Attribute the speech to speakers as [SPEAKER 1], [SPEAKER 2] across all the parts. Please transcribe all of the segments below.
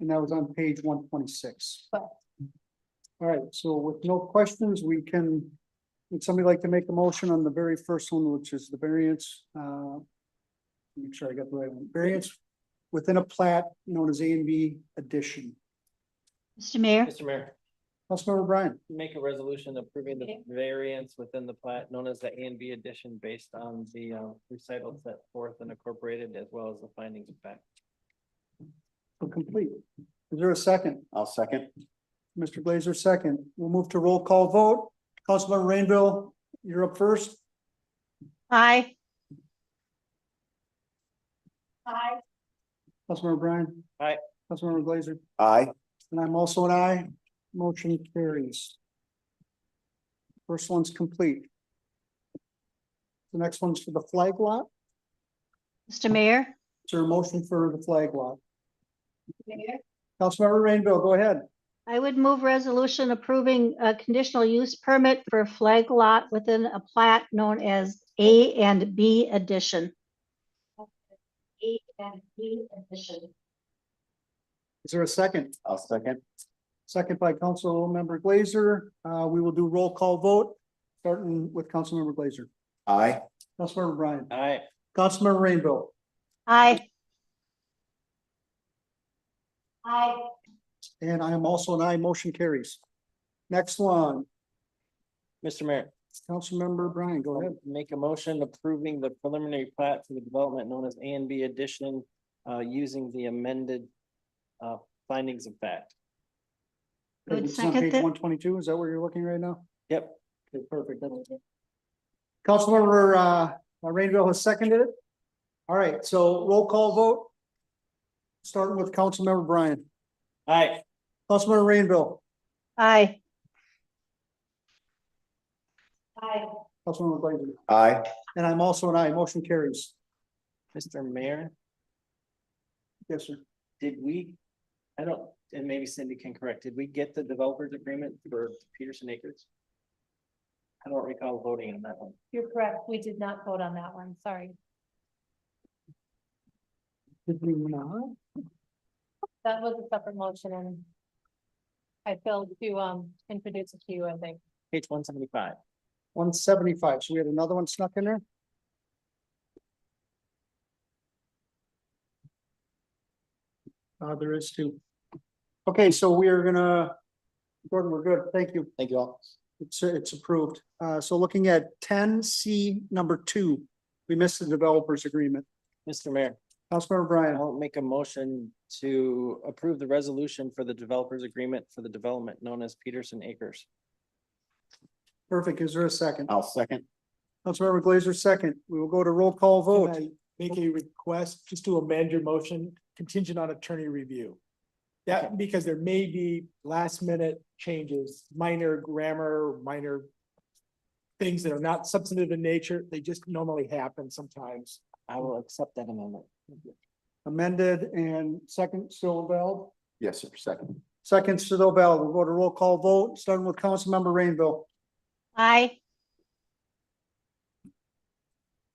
[SPEAKER 1] and that was on page one twenty-six.
[SPEAKER 2] Correct.
[SPEAKER 1] All right, so with no questions, we can, would somebody like to make a motion on the very first one, which is the variance, uh, make sure I got the right one, variance within a plat known as A and B addition.
[SPEAKER 2] Mr. Mayor,
[SPEAKER 3] Mr. Mayor,
[SPEAKER 1] Councilmember Brian,
[SPEAKER 3] make a resolution approving the
[SPEAKER 2] Okay.
[SPEAKER 3] variance within the plat known as the A and B addition based on the um, recital set forth and incorporated as well as the findings of fact.
[SPEAKER 1] for complete. Is there a second?
[SPEAKER 4] I'll second.
[SPEAKER 1] Mr. Glazer, second. We'll move to roll call vote. Councilmember Rainville, you're up first.
[SPEAKER 2] aye. Aye.
[SPEAKER 1] Councilmember Brian.
[SPEAKER 3] Aye.
[SPEAKER 1] Councilmember Glazer,
[SPEAKER 4] Aye.
[SPEAKER 1] and I'm also an aye. Motion carries. First one's complete. The next one's for the flag lot.
[SPEAKER 2] Mr. Mayor?
[SPEAKER 1] Is there a motion for the flag lot?
[SPEAKER 2] Mayor?
[SPEAKER 1] Councilmember Rainville, go ahead.
[SPEAKER 2] I would move resolution approving a conditional use permit for a flag lot within a plat known as A and B addition. A and B addition.
[SPEAKER 1] Is there a second?
[SPEAKER 4] I'll second.
[SPEAKER 1] Second by Councilmember Glazer. Uh, we will do roll call vote, starting with Councilmember Glazer.
[SPEAKER 4] Aye.
[SPEAKER 1] Councilmember Brian.
[SPEAKER 3] Aye.
[SPEAKER 1] Councilmember Rainville.
[SPEAKER 2] Aye. Aye.
[SPEAKER 1] And I am also an aye, motion carries. Next one,
[SPEAKER 3] Mr. Mayor,
[SPEAKER 1] Councilmember Brian, go ahead.
[SPEAKER 3] make a motion approving the preliminary plat for the development known as A and B addition uh, using the amended uh, findings of fact.
[SPEAKER 2] I would
[SPEAKER 1] It's on
[SPEAKER 2] second
[SPEAKER 1] page
[SPEAKER 2] that.
[SPEAKER 1] one twenty-two, is that where you're looking right now?
[SPEAKER 3] Yep.
[SPEAKER 1] Okay, perfect. That's- Councilmember, uh, Rainville has seconded it. All right, so roll call vote. Starting with Councilmember Brian,
[SPEAKER 3] Aye.
[SPEAKER 1] Councilmember Rainville,
[SPEAKER 2] Aye. Aye.
[SPEAKER 1] Councilmember Blazer,
[SPEAKER 4] Aye.
[SPEAKER 1] and I'm also an aye, motion carries.
[SPEAKER 3] Mr. Mayor,
[SPEAKER 1] Yes, sir.
[SPEAKER 3] did we, I don't, and maybe Cindy can correct, did we get the developer's agreement for Peterson Acres? I don't recall voting on that one.
[SPEAKER 5] You're correct. We did not vote on that one. Sorry.
[SPEAKER 1] Did we not?
[SPEAKER 5] That was a separate motion and I failed to um introduce it to you, I think.
[SPEAKER 3] Page one seventy-five.
[SPEAKER 1] One seventy-five, so we had another one snuck in there? Uh, there is two. Okay, so we are gonna, Gordon, we're good, thank you.
[SPEAKER 3] Thank you all.
[SPEAKER 1] It's, it's approved. Uh, so looking at ten C number two, we missed the developers agreement.
[SPEAKER 3] Mr. Mayor,
[SPEAKER 1] Councilmember Brian,
[SPEAKER 3] I'll make a motion to approve the resolution for the developer's agreement for the development known as Peterson Acres.
[SPEAKER 1] perfect. Is there a second?
[SPEAKER 4] I'll second.
[SPEAKER 1] Councilmember Glazer, second. We will go to roll call
[SPEAKER 6] Can
[SPEAKER 1] vote.
[SPEAKER 6] I make a request just to amend your motion contingent on attorney review? That, because there may be last minute changes, minor grammar, minor things that are not substantive in nature, they just normally happen sometimes.
[SPEAKER 3] I will accept that amendment.
[SPEAKER 1] Amended and second still valid.
[SPEAKER 4] Yes, sir, second.
[SPEAKER 1] Second still valid. We'll go to roll call vote, starting with Councilmember Rainville.
[SPEAKER 2] Aye.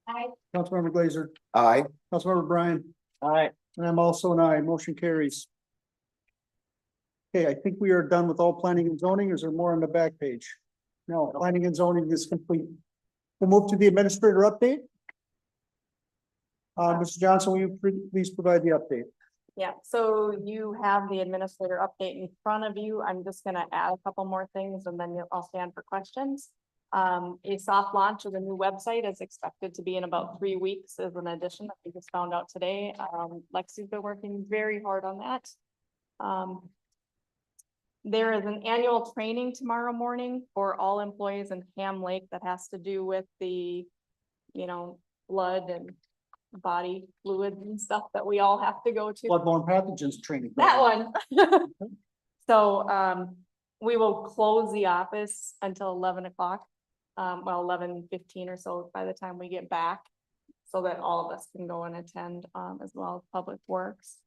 [SPEAKER 2] Aye.
[SPEAKER 1] Councilmember Glazer,
[SPEAKER 4] Aye.
[SPEAKER 1] Councilmember Brian,
[SPEAKER 3] Aye.
[SPEAKER 1] and I'm also an aye. Motion carries. Okay, I think we are done with all planning and zoning. Is there more on the back page? No, planning and zoning is complete. We'll move to the administrator update. Uh, Mr. Johnson, will you pre- please provide the update?
[SPEAKER 5] Yeah, so you have the administrator update in front of you. I'm just gonna add a couple more things and then you'll- I'll stand for questions. Um, a soft launch of the new website is expected to be in about three weeks as an addition that we just found out today. Um, Lexi's been working very hard on that. Um, There is an annual training tomorrow morning for all employees in Ham Lake that has to do with the, you know, blood and body fluids and stuff that we all have to go to.
[SPEAKER 1] Bloodborne pathogens training.
[SPEAKER 5] That one. So, um, we will close the office until eleven o'clock. Um, well, eleven fifteen or so by the time we get back. So that all of us can go and attend, um, as well as Public Works.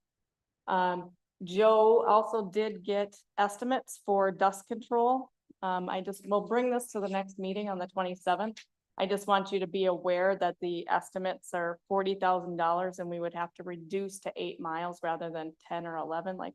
[SPEAKER 5] Um, Joe also did get estimates for dust control. Um, I just, we'll bring this to the next meeting on the twenty-seventh. I just want you to be aware that the estimates are forty thousand dollars and we would have to reduce to eight miles rather than ten or eleven like